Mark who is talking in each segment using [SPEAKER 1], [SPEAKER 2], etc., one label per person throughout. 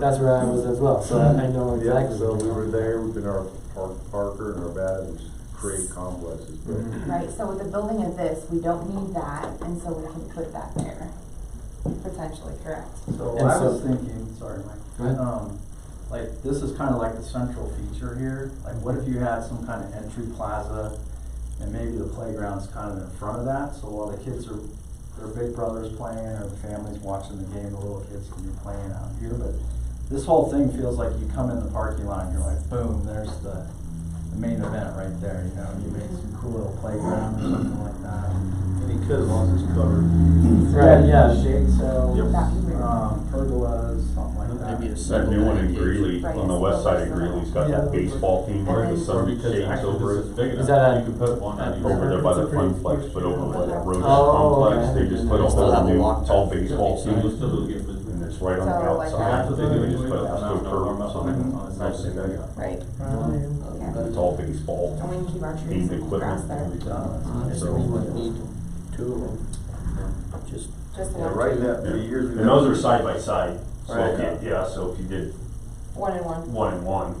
[SPEAKER 1] That's where I was as well, so I I know
[SPEAKER 2] Yeah,
[SPEAKER 1] exactly.
[SPEAKER 2] so
[SPEAKER 1] what
[SPEAKER 2] we
[SPEAKER 1] you're
[SPEAKER 2] were
[SPEAKER 1] talking
[SPEAKER 2] there, we've been our Park- Parker and our Adams create complexes, but
[SPEAKER 1] Mhm.
[SPEAKER 3] Right, so with the building of this, we don't need that, and so we can put that there, potentially, correct?
[SPEAKER 4] So
[SPEAKER 1] And
[SPEAKER 4] I was
[SPEAKER 1] so-
[SPEAKER 4] thinking, sorry,
[SPEAKER 1] Go
[SPEAKER 4] Mike,
[SPEAKER 1] ahead.
[SPEAKER 4] um, like, this is kinda like the central feature here, like, what if you had some kind of entry plaza? And maybe the playground's kind of in front of that, so while the kids are, their big brother's playing, or the family's watching the game, the little kids can be playing out here, but this whole thing feels like you come in the parking lot, and you're like, boom, there's the, the main event right there, you know, you made some cool little playground or something like that.
[SPEAKER 5] And he could, as long as it's covered.
[SPEAKER 1] Right, yeah.
[SPEAKER 4] Shade cells,
[SPEAKER 5] Yep.
[SPEAKER 3] That'd be weird.
[SPEAKER 4] um, pergolas, something like that.
[SPEAKER 6] Maybe a
[SPEAKER 7] That
[SPEAKER 6] single.
[SPEAKER 7] new one in
[SPEAKER 6] dedication.
[SPEAKER 7] Greeley, on the west side of Greeley's got that baseball team where the sun shades over it.
[SPEAKER 5] big
[SPEAKER 1] Is that a-
[SPEAKER 5] could put one on either
[SPEAKER 7] Over there by
[SPEAKER 5] side.
[SPEAKER 7] the complex, but over by that Rhodes
[SPEAKER 1] Oh,
[SPEAKER 7] complex,
[SPEAKER 1] okay.
[SPEAKER 7] they just put a
[SPEAKER 6] They still have
[SPEAKER 7] whole
[SPEAKER 6] a
[SPEAKER 7] new,
[SPEAKER 6] walk
[SPEAKER 7] all
[SPEAKER 6] track.
[SPEAKER 7] baseball
[SPEAKER 5] So you
[SPEAKER 7] teams.
[SPEAKER 5] still do get
[SPEAKER 7] And
[SPEAKER 5] business.
[SPEAKER 7] it's right on the
[SPEAKER 3] So, like
[SPEAKER 7] outside.
[SPEAKER 5] That's
[SPEAKER 3] that.
[SPEAKER 5] what they do,
[SPEAKER 7] They
[SPEAKER 5] they
[SPEAKER 7] just put a steel curb or something.
[SPEAKER 5] on the
[SPEAKER 7] Nice thing they
[SPEAKER 5] side.
[SPEAKER 7] got.
[SPEAKER 3] Right,
[SPEAKER 1] about.
[SPEAKER 3] yeah,
[SPEAKER 7] It's all baseball,
[SPEAKER 3] and we can keep our trees
[SPEAKER 7] themed
[SPEAKER 3] and grass
[SPEAKER 7] equipment and
[SPEAKER 3] there,
[SPEAKER 7] everything.
[SPEAKER 1] Uh,
[SPEAKER 6] Honestly, we would need two of them, just
[SPEAKER 3] just
[SPEAKER 2] yeah,
[SPEAKER 3] one,
[SPEAKER 2] right now, the years.
[SPEAKER 7] And those are side by side, so,
[SPEAKER 2] Right.
[SPEAKER 7] if you- yeah, so if you did
[SPEAKER 3] one and one.
[SPEAKER 7] one and one,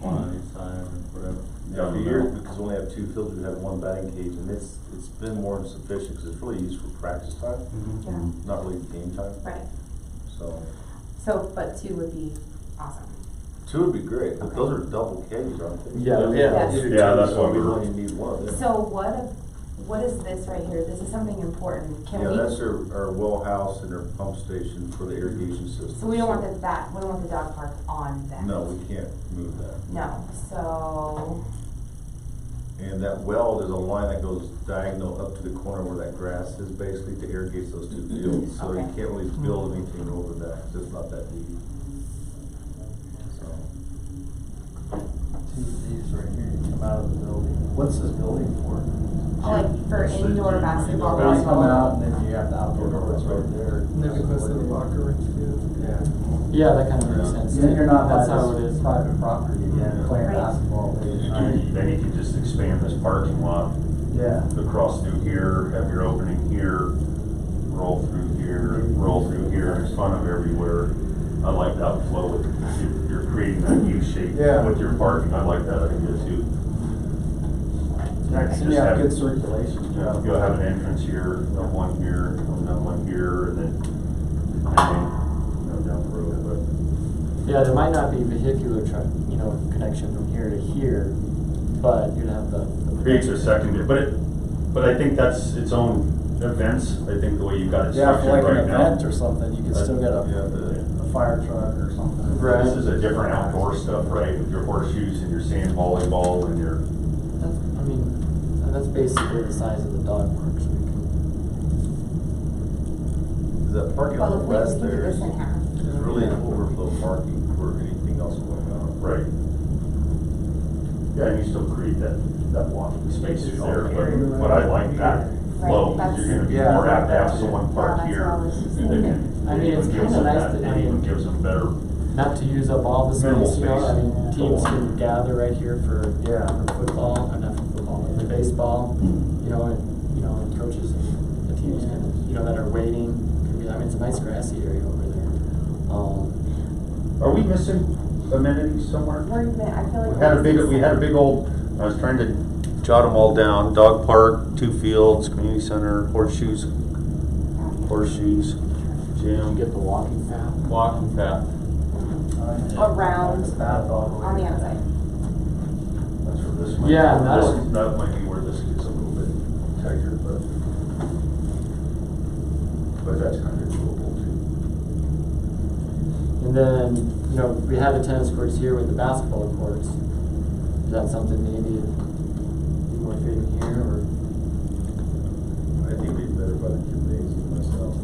[SPEAKER 5] One on each side, or whatever.
[SPEAKER 2] Yeah, the years, because we only have two fields, we have one batting cage, and it's, it's been more than sufficient, because it's really used for practice time,
[SPEAKER 3] Yeah,
[SPEAKER 2] not really game time,
[SPEAKER 3] right,
[SPEAKER 2] so.
[SPEAKER 3] so, but two would be awesome.
[SPEAKER 2] Two would be great, but those are double cages, aren't they?
[SPEAKER 1] Yeah.
[SPEAKER 3] Yeah.
[SPEAKER 2] You need
[SPEAKER 7] Yeah,
[SPEAKER 2] two,
[SPEAKER 7] that's
[SPEAKER 2] so
[SPEAKER 7] what
[SPEAKER 2] We
[SPEAKER 7] we-
[SPEAKER 2] only need one, yeah.
[SPEAKER 3] So what, if- what is this right here, this is something important, can
[SPEAKER 2] Yeah,
[SPEAKER 3] we,
[SPEAKER 2] that's our, our well house and our pump station for the irrigation system.
[SPEAKER 3] so we don't want the, that, we don't want the dog park on that.
[SPEAKER 2] No, we can't move that.
[SPEAKER 3] No, so,
[SPEAKER 2] And that well, there's a line that goes diagonal up to the corner where that grass is basically to irrigate those two fields. So you
[SPEAKER 3] Mm-hmm. Okay.
[SPEAKER 2] can't really build anything over that, 'cause it's not that deep. So,
[SPEAKER 4] two of these right here, you come out of the building. What's this building for?
[SPEAKER 3] like, for
[SPEAKER 5] So
[SPEAKER 3] indoor
[SPEAKER 5] you-
[SPEAKER 3] basketball,
[SPEAKER 5] Well,
[SPEAKER 4] Well, you come
[SPEAKER 3] volleyball,
[SPEAKER 4] out and then you have the outdoor doors right there.
[SPEAKER 8] rooms too.
[SPEAKER 4] Yeah.
[SPEAKER 1] Yeah, that kind of makes sense.
[SPEAKER 4] Then you're not,
[SPEAKER 1] That's
[SPEAKER 4] that's
[SPEAKER 1] how it is.
[SPEAKER 4] private property again, playing
[SPEAKER 3] Right.
[SPEAKER 4] basketball late at night.
[SPEAKER 7] then you could just expand this parking lot
[SPEAKER 4] Yeah.
[SPEAKER 7] across through here, have your opening here, roll through here, roll through here, and it's fun of everywhere. I like that flow with, you're- you're creating that U shape
[SPEAKER 4] Yeah.
[SPEAKER 7] with your parking, I like that idea too.
[SPEAKER 4] Yeah, 'cause then you
[SPEAKER 7] Just
[SPEAKER 4] have
[SPEAKER 7] have-
[SPEAKER 4] good circulation.
[SPEAKER 7] Yeah, you'll have an entrance here, and one here, and then one here, and then, and then, you know, down the road, but.
[SPEAKER 1] Yeah, there might not be vehicular truck, you know, connection from here to here, but you'd have the. the-
[SPEAKER 7] creates a secondary, but it, but I think that's its own events, I think the way you've got it
[SPEAKER 4] Yeah, for
[SPEAKER 7] structured
[SPEAKER 4] like an
[SPEAKER 7] right now.
[SPEAKER 4] event or something, you could
[SPEAKER 7] Uh,
[SPEAKER 4] still get
[SPEAKER 2] yeah,
[SPEAKER 4] a,
[SPEAKER 7] the-
[SPEAKER 4] a fire truck or something.
[SPEAKER 1] Right.
[SPEAKER 7] This is a different outdoor stuff, right, with your horseshoes and your sand volleyball and your,
[SPEAKER 1] That's, I mean, and that's basically the size of the dog park, so we can.
[SPEAKER 2] that parking on the
[SPEAKER 3] well, if we we
[SPEAKER 2] west
[SPEAKER 3] can do
[SPEAKER 2] there
[SPEAKER 3] this
[SPEAKER 2] is
[SPEAKER 3] in half.
[SPEAKER 2] is really an overflow parking for anything else going on.
[SPEAKER 7] right. Yeah, and you still create that, that walking space through there, but, but I like that flow,
[SPEAKER 3] Right,
[SPEAKER 7] 'cause you're gonna be
[SPEAKER 4] that's-
[SPEAKER 7] more apt to have
[SPEAKER 4] Yeah,
[SPEAKER 7] someone park
[SPEAKER 3] that's
[SPEAKER 7] here.
[SPEAKER 3] all I was just
[SPEAKER 7] and they can-
[SPEAKER 1] I mean,
[SPEAKER 7] it even
[SPEAKER 1] it's
[SPEAKER 7] gives
[SPEAKER 1] kinda
[SPEAKER 7] them
[SPEAKER 1] nice
[SPEAKER 7] that-
[SPEAKER 1] to
[SPEAKER 7] It
[SPEAKER 1] have-
[SPEAKER 7] even gives them better,
[SPEAKER 1] Not to use up all the
[SPEAKER 7] Minimal
[SPEAKER 1] space, you know, I
[SPEAKER 7] space.
[SPEAKER 1] mean, teams can gather right here for,
[SPEAKER 4] Yeah.
[SPEAKER 1] for football, or not for football, for baseball, you know, and, you know, and coaches and the teams can, you know, that are waiting, can be, I mean, it's a nice grassy area over there. Um,
[SPEAKER 7] are we missing amenities somewhere?
[SPEAKER 3] We're, gonna- I feel like.
[SPEAKER 7] We had a big, we had a big old, I was trying to jot them all down, dog park, two fields, community center, horseshoes, horseshoes,
[SPEAKER 1] you
[SPEAKER 7] gym.
[SPEAKER 1] get the walking path.
[SPEAKER 5] Walking path.
[SPEAKER 3] Around.
[SPEAKER 4] The bath all the way.
[SPEAKER 3] On the outside.
[SPEAKER 7] That's where this might-
[SPEAKER 1] Yeah, that
[SPEAKER 7] this-
[SPEAKER 1] one.
[SPEAKER 7] That might be where this gets a little bit tighter, but. But that's kind of doable too.
[SPEAKER 1] And then, you know, we have the tennis courts here with the basketball courts. Is that something maybe you want to fit in here or?
[SPEAKER 2] I think it'd be better by the gymnasium myself.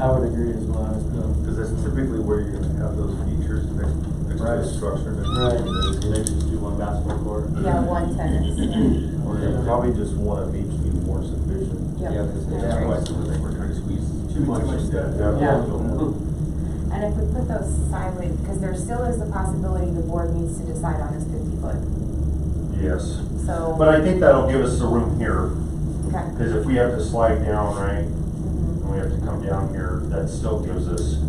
[SPEAKER 1] I would agree as well. I was thinking-
[SPEAKER 2] Because that's typically where you're gonna have those features next, next to the
[SPEAKER 4] Right.
[SPEAKER 2] structure. next to
[SPEAKER 1] Right.
[SPEAKER 2] the
[SPEAKER 5] They just do one basketball court.
[SPEAKER 3] Yeah, one tennis, yeah.
[SPEAKER 2] Or you probably just want them each to be more sufficient.
[SPEAKER 3] Yep.
[SPEAKER 5] Yeah, because they
[SPEAKER 3] That's
[SPEAKER 5] have
[SPEAKER 4] right.
[SPEAKER 5] twice, I think we're trying to squeeze too much into that.
[SPEAKER 7] Yeah.
[SPEAKER 3] And if we put those sideways, because there still is the possibility the board needs to decide on this fifty foot,
[SPEAKER 7] Yes,
[SPEAKER 3] so.
[SPEAKER 7] but I think that'll give us the room here,
[SPEAKER 3] Okay.
[SPEAKER 7] because if we have to slide down, right,
[SPEAKER 3] Mhm.
[SPEAKER 7] and we have to come down here, that still gives us